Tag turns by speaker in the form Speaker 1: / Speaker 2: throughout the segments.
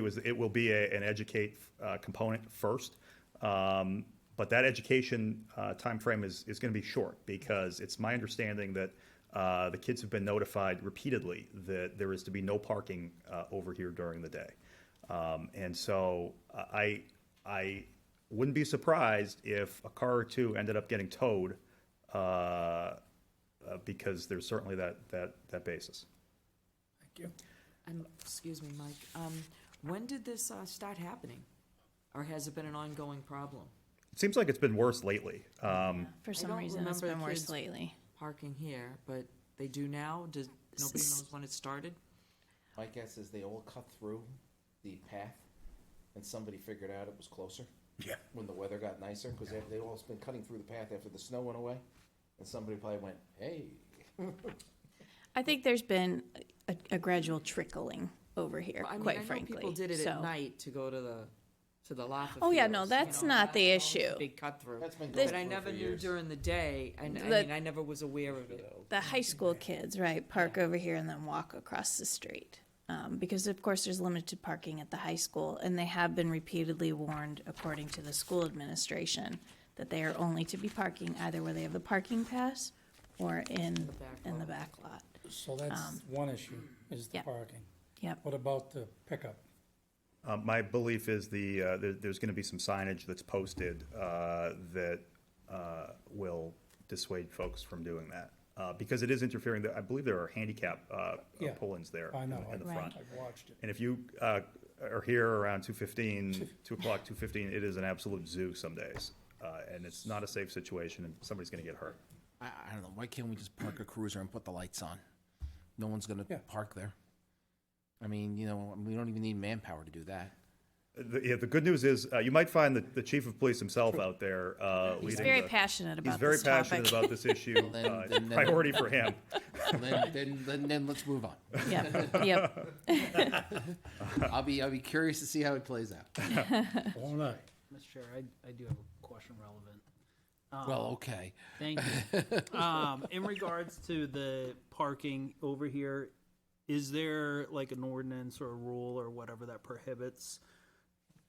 Speaker 1: It was, it will be a, an educate, uh, component first. Um, but that education, uh, timeframe is, is gonna be short because it's my understanding that, uh, the kids have been notified repeatedly that there is to be no parking, uh, over here during the day. Um, and so uh, I, I wouldn't be surprised if a car or two ended up getting towed, uh, uh, because there's certainly that, that, that basis.
Speaker 2: Thank you.
Speaker 3: And, excuse me, Mike, um, when did this, uh, start happening? Or has it been an ongoing problem?
Speaker 1: It seems like it's been worse lately. Um,
Speaker 4: For some
Speaker 3: don't
Speaker 4: reason, it's
Speaker 3: remember the
Speaker 4: been worse
Speaker 3: kids-
Speaker 4: lately.
Speaker 3: Parking here, but they do now? Does, nobody knows when it started?
Speaker 5: My guess is they all cut through the path, and somebody figured out it was closer
Speaker 2: Yeah.
Speaker 5: when the weather got nicer, because they all been cutting through the path after the snow went away, and somebody probably went, hey,
Speaker 4: I think there's been a, a gradual trickling over here,
Speaker 3: I mean, I
Speaker 4: quite
Speaker 3: know
Speaker 4: frankly.
Speaker 3: People did it
Speaker 4: so.
Speaker 3: at night to go to the, to the Laffa
Speaker 4: Oh, yeah, no,
Speaker 3: Fields, you
Speaker 4: that's
Speaker 3: know,
Speaker 4: not the
Speaker 3: always a
Speaker 4: issue.
Speaker 3: Big cut through.
Speaker 5: that's been going
Speaker 3: But I
Speaker 5: on
Speaker 3: never
Speaker 5: for
Speaker 3: knew
Speaker 5: years.
Speaker 3: during the day, and I
Speaker 4: The-
Speaker 3: mean, I never was aware of it.
Speaker 4: The high school kids, right, park over here and then walk across the street. Um, because of course, there's limited parking at the high school, and they have been repeatedly warned, according to the school administration, that they are only to be parking either where they have the parking pass or in,
Speaker 3: back
Speaker 4: in the
Speaker 3: lot.
Speaker 4: back lot.
Speaker 2: So that's one issue, is the
Speaker 4: yeah.
Speaker 2: parking.
Speaker 4: Yep.
Speaker 2: What about the pickup?
Speaker 1: Uh, My belief is the, uh, there- there's going to be some signage that's posted uh, that uh, will dissuade folks from doing that. Uh, Because it is interfering, I believe there are handicap uh, uh,
Speaker 2: Yeah,
Speaker 1: pull-ins there
Speaker 2: I
Speaker 1: in
Speaker 2: know,
Speaker 1: the- in the
Speaker 2: I've
Speaker 1: front.
Speaker 2: I've watched it.
Speaker 1: And if you uh, are here around 2:15, 2 o'clock, 2:15, it is an absolute zoo some days. Uh, And it's not a safe situation, and somebody's going to get hurt.
Speaker 6: I, I don't know. Why can't we just park a cruiser and put the lights on? No one's gonna
Speaker 2: Yeah.
Speaker 6: park there. I mean, you know, we don't even need manpower to do that.
Speaker 1: The yeah, the good news is, uh, you might find the- the chief of police himself out there uh, leading
Speaker 4: He's very
Speaker 1: the-
Speaker 4: passionate about
Speaker 1: He's very
Speaker 4: this topic.
Speaker 1: passionate about this issue.
Speaker 6: then-
Speaker 1: Uh, It's a
Speaker 6: then- then-
Speaker 1: priority for him.
Speaker 6: then, then, then, then let's move on.
Speaker 4: Yep, yep.
Speaker 6: I'll be, I'll be curious to see how it plays out.
Speaker 2: All right.
Speaker 7: Mr. Chair, I, I do have a question relevant.
Speaker 6: Well, okay.
Speaker 7: Thank you. Um, in regards to the parking over here, is there like an ordinance or a rule or whatever that prohibits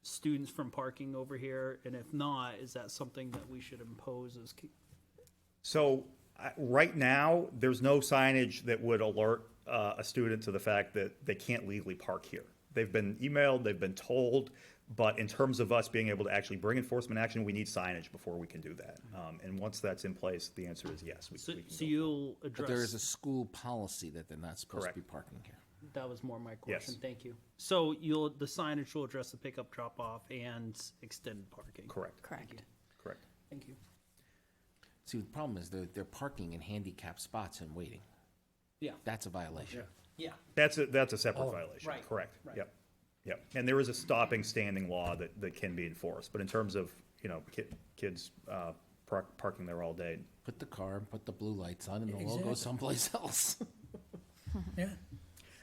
Speaker 7: students from parking over here? And if not, is that something that we should impose as, ki-
Speaker 1: So, I- right now, there's no signage that would alert uh, a student to the fact that they can't legally park here. They've been emailed, they've been told, but in terms of us being able to actually bring enforcement action, we need signage before we can do that. Um, And once that's in place, the answer is yes. we-
Speaker 7: so,
Speaker 1: we can go.
Speaker 7: so you'll
Speaker 6: But there is a
Speaker 7: address,
Speaker 6: school policy that they're not supposed
Speaker 1: Correct.
Speaker 6: to be parking here.
Speaker 7: that was more my question.
Speaker 1: Yes.
Speaker 7: Thank you. So you'll, the signage will address the pickup, drop off and extended parking.
Speaker 1: Correct,
Speaker 4: Correct.
Speaker 1: correct.
Speaker 7: Thank you.
Speaker 6: See, the problem is they're, they're parking in handicapped spots and waiting.
Speaker 7: Yeah,
Speaker 6: That's a violation.
Speaker 7: yeah.
Speaker 1: That's a, that's a separate violation,
Speaker 7: Oh, right,
Speaker 1: correct,
Speaker 7: right.
Speaker 1: yep, yep. And there is a stopping standing law that, that can be enforced, but in terms of, you know, ki- kids uh, par- parking there all day,
Speaker 6: Put the car and put the blue lights on and it'll all go
Speaker 2: Exactly.
Speaker 6: someplace else.
Speaker 2: Yeah,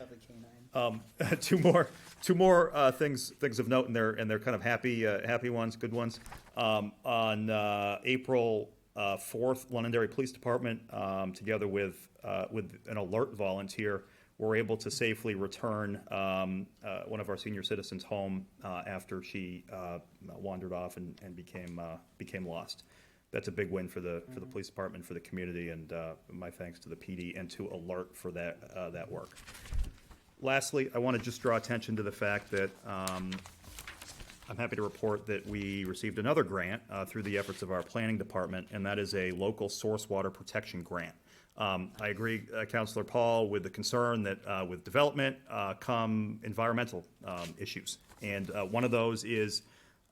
Speaker 1: two more, two more uh, things things of note, and they're and they're kind of happy uh, happy ones, good ones. Um, on uh, April uh, fourth, Londonderry Police Department, um, together with uh, with an alert volunteer, were able to safely return um, uh, one of our senior citizens home uh, after she uh, wandered off and, and became uh, became lost. That's a big win for the for the police department, for the community, and uh, my thanks to the PD and to Alert for that uh, that work. Lastly, I want to just draw attention to the fact that um, I'm happy to report that we received another grant uh, through the efforts of our planning department, and that is a local source water protection grant. Um, I agree, uh, Counselor Paul, with the concern that uh, with development uh, come environmental um, issues. And uh, one of those is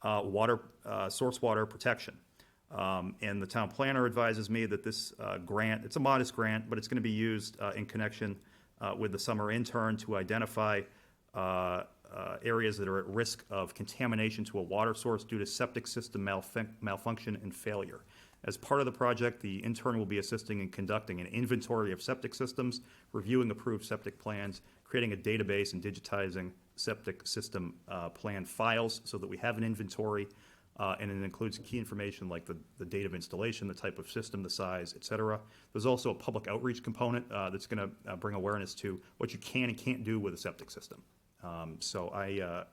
Speaker 1: uh, water, uh, source water protection. Um, And the town planner advises me that this uh, grant, it's a modest grant, but it's going to be used uh, in connection uh, with the summer intern to identify uh, uh, areas that are at risk of contamination to a water source due to septic system malfunc- malfunction and failure. As part of the project, the intern will be assisting in conducting an inventory of septic systems, reviewing approved septic plans, creating a database and digitizing septic system uh, plan files so that we have an inventory uh, and it includes key information like the, the date of installation, the type of system, the size, et cetera. There's also a public outreach component uh, that's going to uh, bring awareness to what you can and can't do with a septic system. Um, so I, uh,